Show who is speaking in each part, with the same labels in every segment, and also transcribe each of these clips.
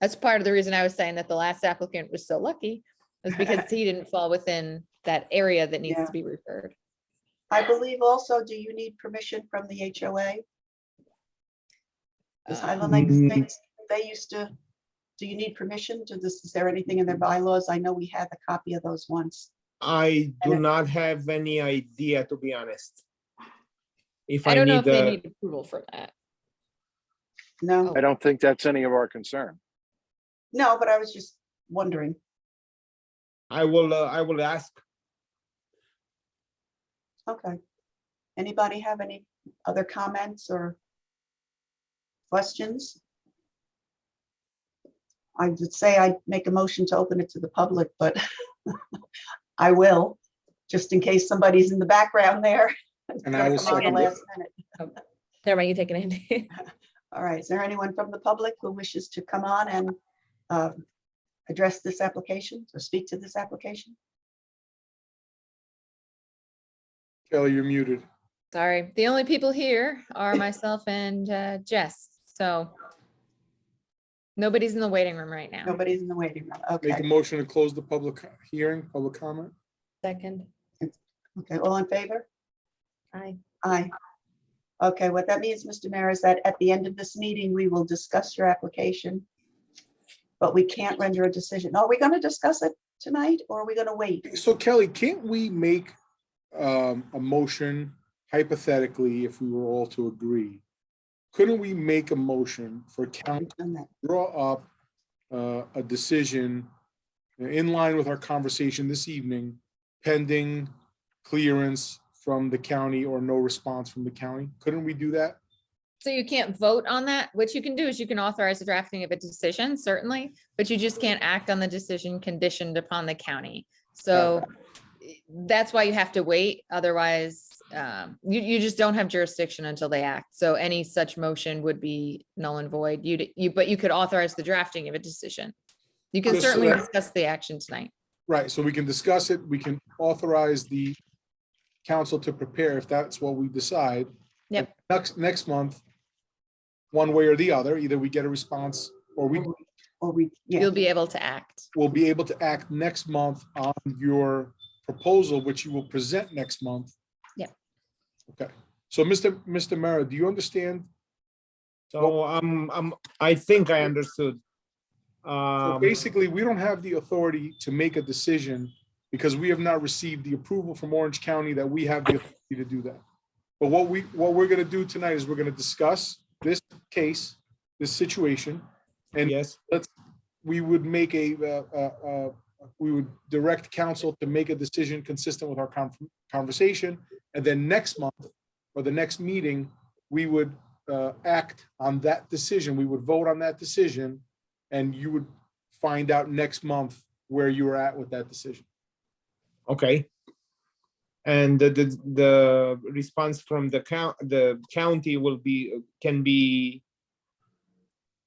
Speaker 1: That's part of the reason I was saying that the last applicant was so lucky, was because he didn't fall within that area that needs
Speaker 2: Yeah.
Speaker 1: to be referred.
Speaker 2: I believe also, do you need permission from the HOA? Does
Speaker 1: Uh,
Speaker 2: Highland Lake
Speaker 3: Mm.
Speaker 2: Estates, they used to, do you need permission to this, is there anything in their bylaws? I know we had the copy of those once.
Speaker 3: I do
Speaker 2: And-
Speaker 3: not have any idea, to be honest. If
Speaker 1: I
Speaker 3: I
Speaker 1: don't know if
Speaker 3: need,
Speaker 1: they
Speaker 3: uh,
Speaker 1: need approval for that.
Speaker 2: No,
Speaker 4: I don't think that's any of our concern.
Speaker 2: no, but I was just wondering.
Speaker 3: I will, uh, I will ask.
Speaker 2: Okay. Anybody have any other comments or questions? I would say I'd make a motion to open it to the public, but I will, just in case somebody's in the background there.
Speaker 5: And
Speaker 2: Gonna
Speaker 5: I will
Speaker 2: come on the
Speaker 5: second it.
Speaker 2: last minute.
Speaker 6: Never mind, you take it, Andy.
Speaker 2: All right, is there anyone from the public who wishes to come on and um, address this application or speak to this application?
Speaker 5: Kelly, you're muted.
Speaker 1: Sorry, the only people here are myself and uh, Jess, so nobody's in the waiting room right now.
Speaker 2: Nobody's in the waiting room.
Speaker 5: Make a
Speaker 2: Okay,
Speaker 5: motion to close the public hearing, public comment.
Speaker 6: Second,
Speaker 2: okay, all in favor?
Speaker 6: aye.
Speaker 2: Aye. Okay, what that means, Mr. Mayor, is that at the end of this meeting, we will discuss your application. But we can't render a decision. Are we going to discuss it tonight or are we going to wait?
Speaker 5: So Kelly, can't we make um, a motion hypothetically if we were all to agree? Couldn't we make a motion for council
Speaker 2: on that?
Speaker 5: to draw up uh, a decision in line with our conversation this evening pending clearance from the county or no response from the county? Couldn't we do that?
Speaker 1: So you can't vote on that. What you can do is you can authorize the drafting of a decision, certainly, but you just can't act on the decision conditioned upon the county. So i- that's why you have to wait. Otherwise, um, you, you just don't have jurisdiction until they act. So any such motion would be null and void. You, you, but you could authorize the drafting of a decision. You can
Speaker 5: Just so
Speaker 1: certainly
Speaker 5: that-
Speaker 1: discuss the action tonight.
Speaker 5: Right, so we can discuss it, we can authorize the council to prepare if that's what we decide.
Speaker 1: Yep.
Speaker 5: Next, next month, one way or the other, either we get a response or we
Speaker 2: Or we, yeah,
Speaker 1: You'll be able to act.
Speaker 5: will be able to act next month on your proposal, which you will present next month.
Speaker 1: Yep.
Speaker 5: Okay, so Mr. Mr. Mara, do you understand?
Speaker 3: So I'm, I'm, I think I understood.
Speaker 5: So
Speaker 3: Um,
Speaker 5: Basically, we don't have the authority to make a decision because we have not received the approval from Orange County that we have the authority to do that. But what we, what we're gonna do tonight is we're gonna discuss this case, this situation. And
Speaker 3: yes,
Speaker 5: we would make a, uh, uh, uh, we would direct council to make a decision consistent with our con- conversation. And then next month, or the next meeting, we would uh, act on that decision. We would vote on that decision. And you would find out next month where you were at with that decision.
Speaker 3: okay. And the, the, the response from the coun, the county will be, can be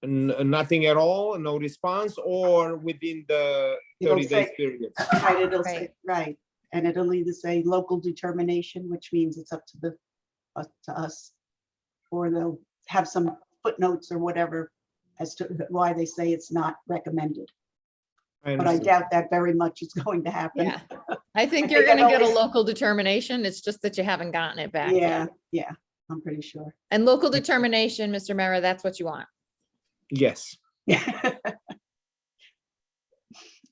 Speaker 3: n- nothing at all, no response, or within the
Speaker 2: It'll
Speaker 3: thirty days
Speaker 2: say-
Speaker 3: period.
Speaker 2: right, it'll say,
Speaker 1: Right.
Speaker 2: right. And it'll either say local determination, which means it's up to the, up to us. Or they'll have some footnotes or whatever as to why they say it's not recommended. But I
Speaker 3: understand.
Speaker 2: doubt that very much is going to happen.
Speaker 1: Yeah. I think
Speaker 2: I
Speaker 1: you're
Speaker 2: think I've
Speaker 1: gonna get a
Speaker 2: always-
Speaker 1: local determination. It's just that you haven't gotten it back. yet.
Speaker 2: Yeah, yeah, I'm pretty sure.
Speaker 1: And local determination, Mr. Mara, that's what you want.
Speaker 3: Yes,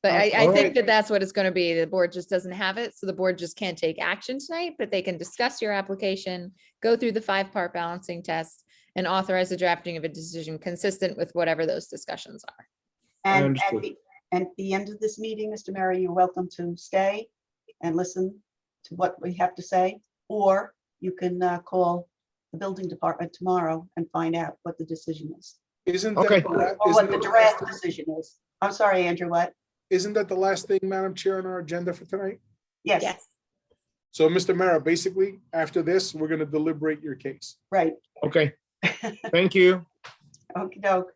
Speaker 1: But I, I think
Speaker 5: Alright.
Speaker 1: that that's what it's going to be. The board just doesn't have it. So the board just can't take action tonight, but they can discuss your application, go through the five-part balancing test and authorize the drafting of a decision consistent with whatever those discussions are.
Speaker 3: I
Speaker 2: And at
Speaker 3: understood.
Speaker 2: the, at the end of this meeting, Mr. Mary, you're welcome to stay and listen to what we have to say. Or you can uh, call the building department tomorrow and find out what the decision is.
Speaker 5: Isn't
Speaker 3: Okay.
Speaker 5: that, the la-
Speaker 2: Or
Speaker 5: isn't
Speaker 2: what the
Speaker 5: that the last
Speaker 2: draft
Speaker 5: thing-
Speaker 2: decision is. I'm sorry, Andrew, what?
Speaker 5: isn't that the last thing, Madam Chair, on our agenda for tonight?
Speaker 2: Yes,
Speaker 5: So, Mr. Mara, basically, after this, we're gonna deliberate your case.
Speaker 2: right.
Speaker 3: okay. Thank you.
Speaker 2: okey doke.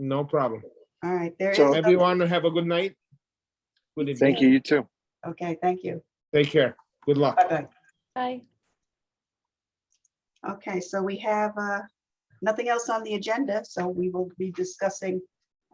Speaker 3: No problem.
Speaker 2: All right, there is.
Speaker 4: So
Speaker 2: no-
Speaker 3: Everyone have a good night. Good evening.
Speaker 4: Thank you, you too.
Speaker 2: Okay, thank you.
Speaker 3: Take care. Good luck.
Speaker 2: Bye-bye.
Speaker 6: Aye.
Speaker 2: Okay, so we have uh, nothing else on the agenda, so we will be discussing